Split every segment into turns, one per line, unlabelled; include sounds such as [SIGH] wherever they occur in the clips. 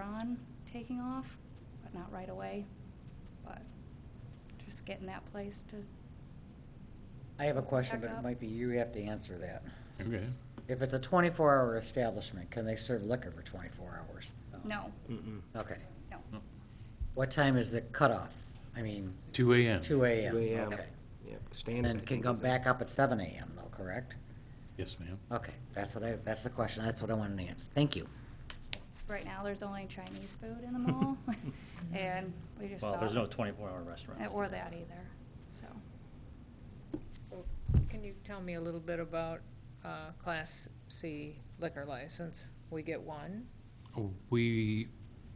on taking off, but not right away. But just getting that place to,
I have a question, but
Back
it
up.
might be you have to answer that.
Okay.
If it's a 24-hour establishment, can they serve liquor for 24 hours?
Oh.
no,
Okay.
no.
What time is the cutoff? I mean,
Two AM.
2
2
a.m.?
a.m.
Okay.
Yep, standard.
And
I
can
think,
come
is it?
back up at 7 a.m. though, correct?
Yes, ma'am.
Okay, that's what I, that's the question, that's what I wanted to answer. Thank you.
Right now, there's only Chinese food in the
[LAUGHS]
mall, [LAUGHS] and we just
Well, there's
saw-
no 24-hour restaurants.
Or that either, so.
Well, Can you tell me a little bit about uh, Class C liquor license? We get one?
Oh, We,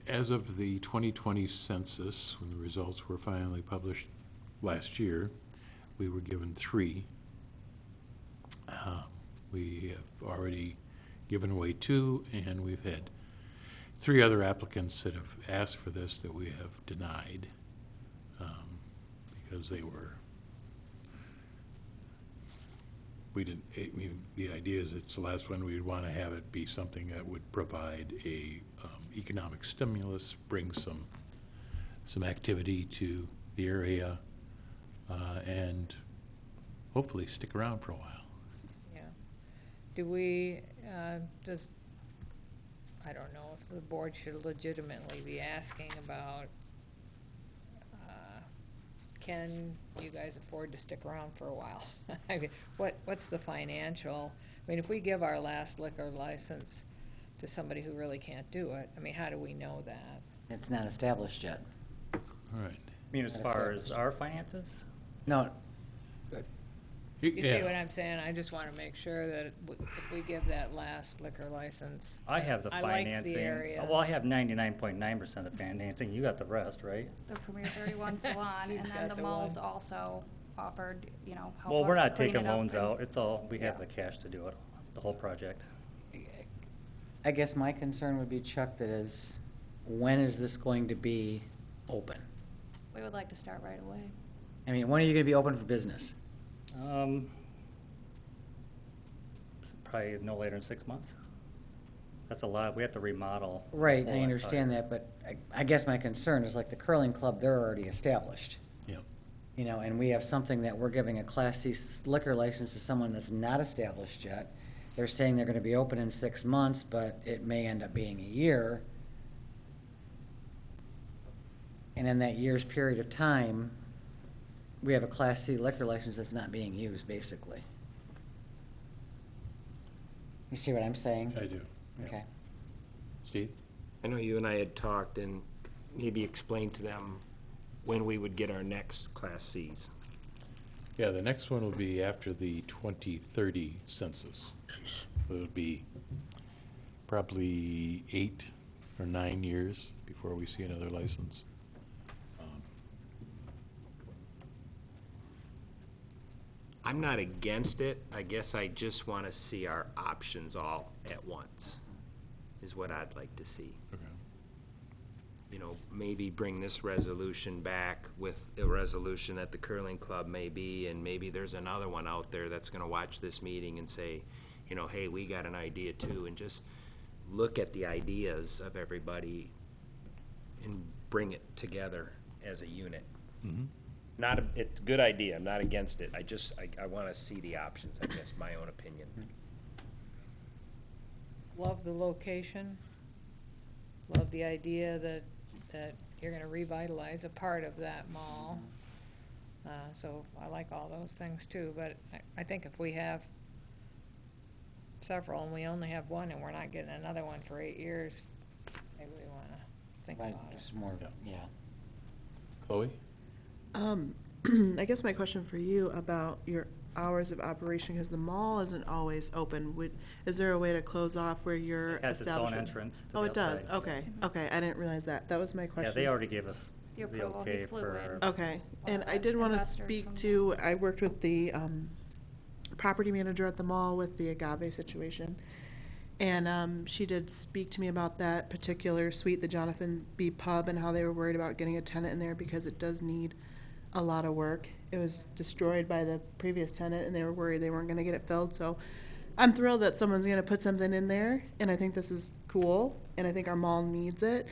as of the 2020 census, when the results were finally published last year, we were given three. Um, We have already given away two, and we've had three other applicants that have asked for this that we have denied um, because they were, we didn't, I mean, the idea is it's the last one, we'd want to have it be something that would provide a um, economic stimulus, bring some, some activity to the area, uh, and hopefully stick around for a while.
Yeah. Do we, uh, does, I don't know if the board should legitimately be asking about, uh, can you guys afford to stick around for a while? [LAUGHS] I mean, What, what's the financial, I mean, if we give our last liquor license to somebody who really can't do it, I mean, how do we know that?
It's not established yet.
All right.
I mean, as far as our finances,
No,
You see what I'm saying? I just want to make sure that w- if we give that last liquor license.
I have the
I like the
financing.
area.
Well, I have 99.9% of the financing, you got the rest, right?
The
[LAUGHS]
Premier 31 Salon,
She's
and
got
then the
the
malls
one.
also offered, you know, help us clean it up.
Well, we're not taking loans
and-
out, it's all, we have
Yeah.
the cash to do it, the whole project.
I guess my concern would be Chuck, that is, when is this going to be open?
We would like to start right away.
I mean, when are you gonna be open for business?
Um, s- Probably no later than six months. That's a lot, we have to remodel. the
Right,
whole
I understand
entire-
that, but I, I guess my concern is like the curling club, they're already established.
Yeah.
You know, and we have something that we're giving a Class C liquor license to someone that's not established yet. They're saying they're gonna be open in six months, but it may end up being a year. And in that year's period of time, we have a Class C liquor license that's not being used, basically. You see what I'm saying?
I do. yeah.
Okay.
Steve?
I know you and I had talked and maybe explained to them when we would get our next Class Cs.
Yeah, the next one will be after the 2030 census. It'll be probably eight or nine years before we see another license.
I'm not against it. I guess I just want to see our options all at once, is what I'd like to see.
Okay.
You know, maybe bring this resolution back with a resolution that the curling club may be, and maybe there's another one out there that's going to watch this meeting and say, you know, hey, we got an idea too, and just look at the ideas of everybody and bring it together as a unit. Not, a- it's a good idea, I'm not against it, I just, I, I wanna see the options, I guess, my own opinion.
Love the location. Love the idea that, that you're gonna revitalize a part of that mall. Uh, so I like all those things too, but I, I think if we have several and we only have one and we're not getting another one for eight years, maybe we wanna think
Right,
about it.
just more,
Yeah.
yeah.
Chloe?
Um, [CLEARS THROAT] I guess my question for you about your hours of operation, because the mall isn't always open, would, is there a way to close off where your
It has its own
establishment?
entrance to the
Oh, it does,
outside.
okay, okay, I didn't realize that, that was my
Yeah,
question.
they already gave us
The
the
approval, he
okay
flew
for.
in.
Okay, and I did
Well,
want to
investors
speak
from-
to, I worked with the um, property manager at the mall with the agave situation. And um, she did speak to me about that particular suite, the Jonathan B Pub, and how they were worried about getting a tenant in there because it does need a lot of work. It was destroyed by the previous tenant, and they were worried they weren't going to get it filled, so I'm thrilled that someone's going to put something in there, and I think this is cool, and I think our mall needs it.